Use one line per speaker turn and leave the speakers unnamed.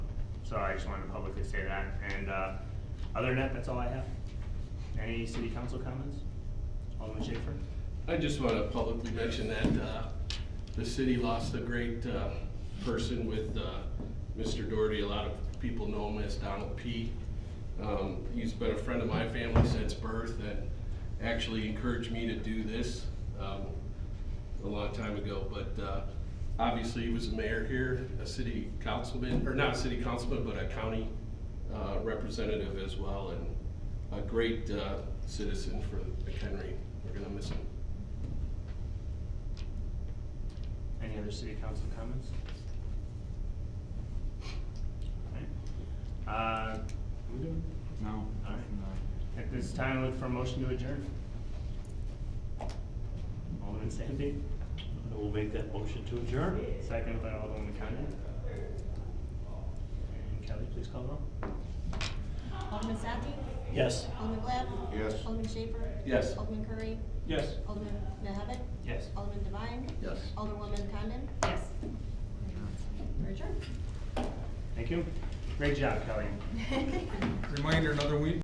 So I just wanted to publicly say that. And uh, other than that, that's all I have. Any city council comments? Alderman Schaefer?
I just want to publicly mention that uh, the city lost a great uh, person with uh, Mr. Doherty. A lot of people know him as Donald P. Um, He's been a friend of my family since birth and actually encouraged me to do this um, a long time ago. But uh, obviously, he was a mayor here, a city councilman, or not a city councilman, but a county uh, representative as well, and a great uh, citizen for McHenry. We're going to miss him.
Any other city council comments? Alright. Uh, we good?
No.
All right. At this time, I look for a motion to adjourn. Alderman Sandy,
I will make that motion to adjourn.
second by Alderman Condon. And Kelly, please call the roll.
Alderman Sathy?
Yes.
Alderman Glab?
Yes.
Alderman Schaper?
Yes.
Alderman Curry?
Yes.
Alderman Mahavik?
Yes.
Alderman Devine?
Yes.
Alderwoman Condon? Yes. Your turn.
Thank you. Great job, Kelly.
Reminder, another week.